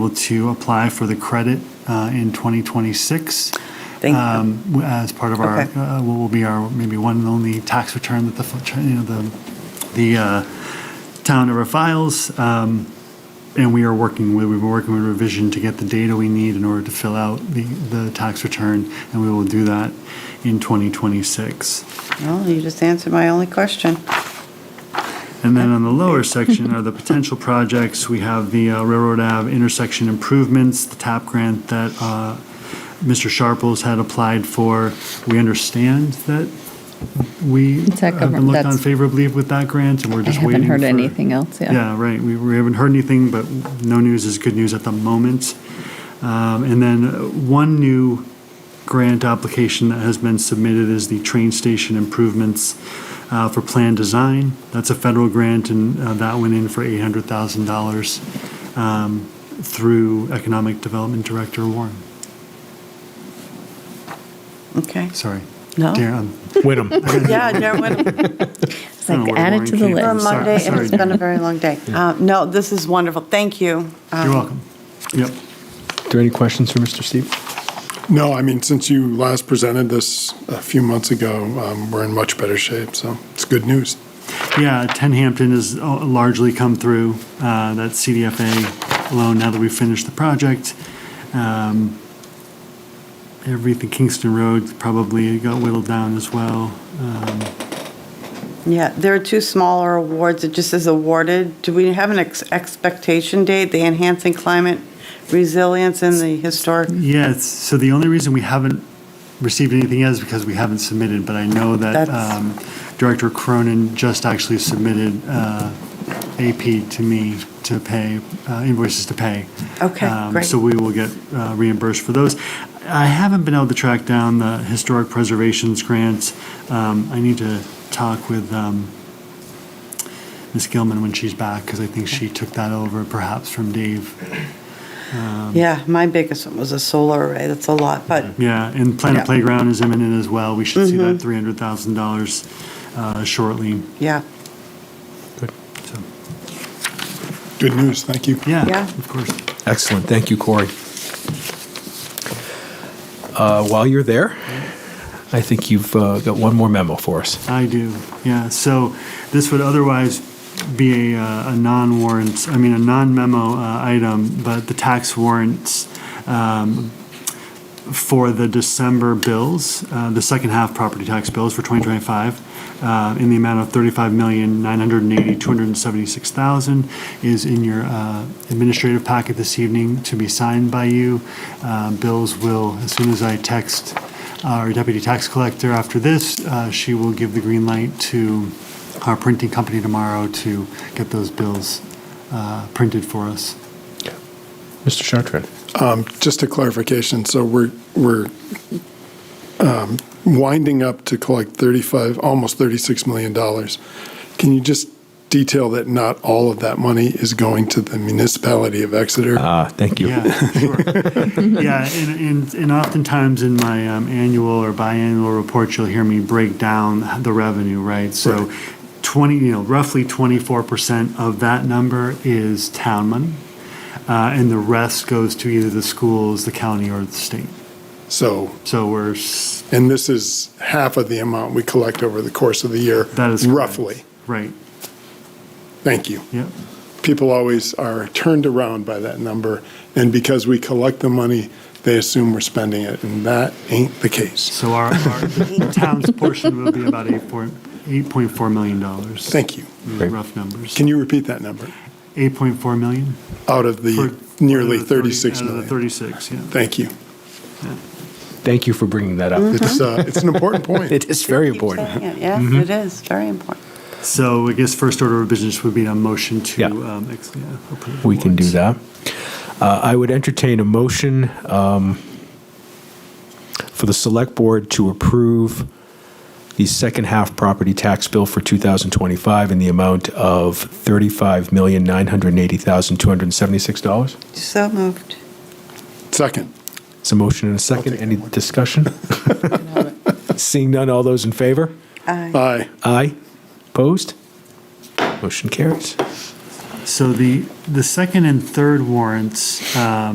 able to apply for the credit uh, in 2026 Thank you. um, w- as part of our, Okay. uh, what will be our maybe one and only tax return that the, f- you know, the, the uh, town ever files. Um, And we are working with, we've been working with revision to get the data we need in order to fill out the, the tax return, and we will do that in 2026. Well, you just answered my only question. And then on the lower section are the potential projects. We have the uh, Railroad Ave intersection improvements, the TAP grant that uh, Mr. Sharples had applied for. We understand that we have It's that been government- looked on that's- favorably with that grant, and we're I just haven't waiting heard for- anything else, yeah. Yeah, right. We we haven't heard anything, but no news is good news at the moment. Um, And then uh, one new grant application that has been submitted is the train station improvements uh, for plan design. That's a federal grant, and uh, that went in for $800,000 um, through Economic Development Director Warren. Okay. Sorry. No? Darren, um, Whittem. Yeah, Darren, It's I don't know like where added Lauren to the came we're on from. Sorry, Monday, list. and it's sorry. been a very long day. Uh, No, this is wonderful. Thank you. Um, You're welcome. Yep. there any questions for Mr. Steve? No, I mean, since you last presented this a few months ago, um, we're in much better shape, so it's good news. Yeah, 10 Hampton has uh, largely come through, uh, that CDFA loan, now that we've finished the project. Um, Everything Kingston Road probably got whittled down as well. Um, Yeah, there are two smaller awards. It just says awarded. Do we have an ex- expectation date, the enhancing climate resilience and the historic? Yeah, it's- so the only reason we haven't received anything yet is because we haven't submitted, but I know that That's- um, Director Cronin just actually submitted uh, AP to me to pay, uh, invoices to pay. Okay, Um, great. So we will get uh, reimbursed for those. I haven't been able to track down the historic preservations grants. Um, I need to talk with um, Ms. Gilman when she's back, because I think she took that over perhaps from Dave. Mm-hmm. Yeah, my biggest one was a solar array. That's a lot, but Yeah, and Planet Yeah. Mm-hmm. Playground is imminent as well. We should see that $300,000 uh, shortly. yeah. So, Good news, thank you. Yeah, Yeah. of course. Excellent. Thank you, Corey. Uh, while you're there, I think you've uh, got one more memo for us. I do, yeah. So this would otherwise be a, uh, a non-warrant, I mean, a non-memo uh, item, but the tax warrants um, for the December bills, uh, the second half property tax bills for 2025, uh, in the amount of $35,980,276,000 is in your uh, administrative packet this evening to be signed by you. Uh, Bills will, as soon as I text our deputy tax collector after this, uh, she will give the green light to our printing company tomorrow to get those bills uh, printed for us. Mr. Chartrand. Um, Just a clarification, so we're, we're um, winding up to collect 35, almost $36 million. Can you just detail that not all of that money is going to the municipality of Uh-huh. Exeter? Ah, thank you. Yeah, sure. yeah, and, and, and oftentimes in my um, annual or biannual report, you'll hear me break down the revenue, right? So, 20, you know, roughly 24% of that number is town money, uh, and the rest goes to either the schools, the county, or the state. So, So we're s- and this is half of the amount we collect over the course of the year. that is correct. Roughly, right. thank you. Yep. people always are turned around by that number, and because we collect the money, they assume we're spending it, and that ain't the case. So our, our the town's portion will be about eight point eight point four million dollars. Thank you. Great. Rough numbers. Can you repeat that number? eight point four million? Out of the For- nearly out of the 30 36 out of the million. 36, yeah. Thank you. Thank you for bringing that up. It's, uh, it's an important point. It is very Keep saying important. it. Yes, Mm-hmm. it is, very important. So I guess first order of business would be a motion to Yeah. um, ex- yeah, approve. the We can do warrants. that. Uh, I would entertain a motion um, for the select board to approve the second half property tax bill for 2025 in the amount of $35,980,276. So moved. Second, It's a motion and a second. take that Any one. discussion? Seeing none, all those in favor? Aye. aye. Aye. Opposed? Motion carries. So the, the second and third warrants, um,